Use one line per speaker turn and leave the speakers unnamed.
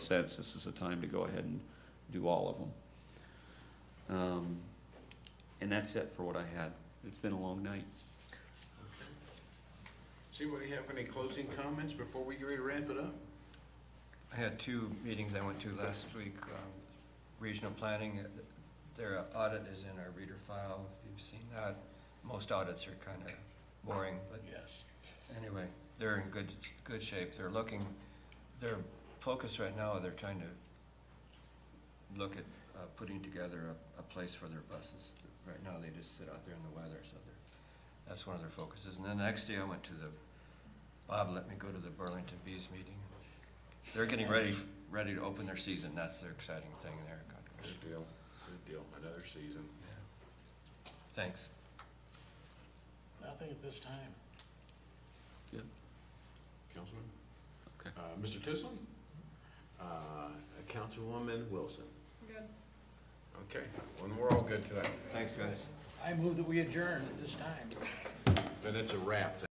sense, this is the time to go ahead and do all of them. Um, And that's it for what I had. It's been a long night.
See, what do you have any closing comments before we get ready to wrap it up?
I had two meetings I went to last week, um, regional planning, uh, their audit is in our reader file, if you've seen that. Most audits are kind of boring, but
Yes.
anyway, they're in good, good shape, they're looking, their focus right now, they're trying to look at uh, putting together a, a place for their buses. Right now, they just sit out there in the weather, so they're, that's one of their focuses. And then the next day, I went to the, Bob let me go to the Burlington Bees meeting. They're getting ready, ready to open their season, that's their exciting thing there.
Good deal, good deal, another season.
Thanks.
Nothing at this time.
Yep.
Councilman?
Okay.
Uh, Mr. Tisland? Uh, Councilwoman Wilson?
Good.
Okay, when we're all good tonight,
Thanks, guys.
I move that we adjourn at this time.
then it's a wrap.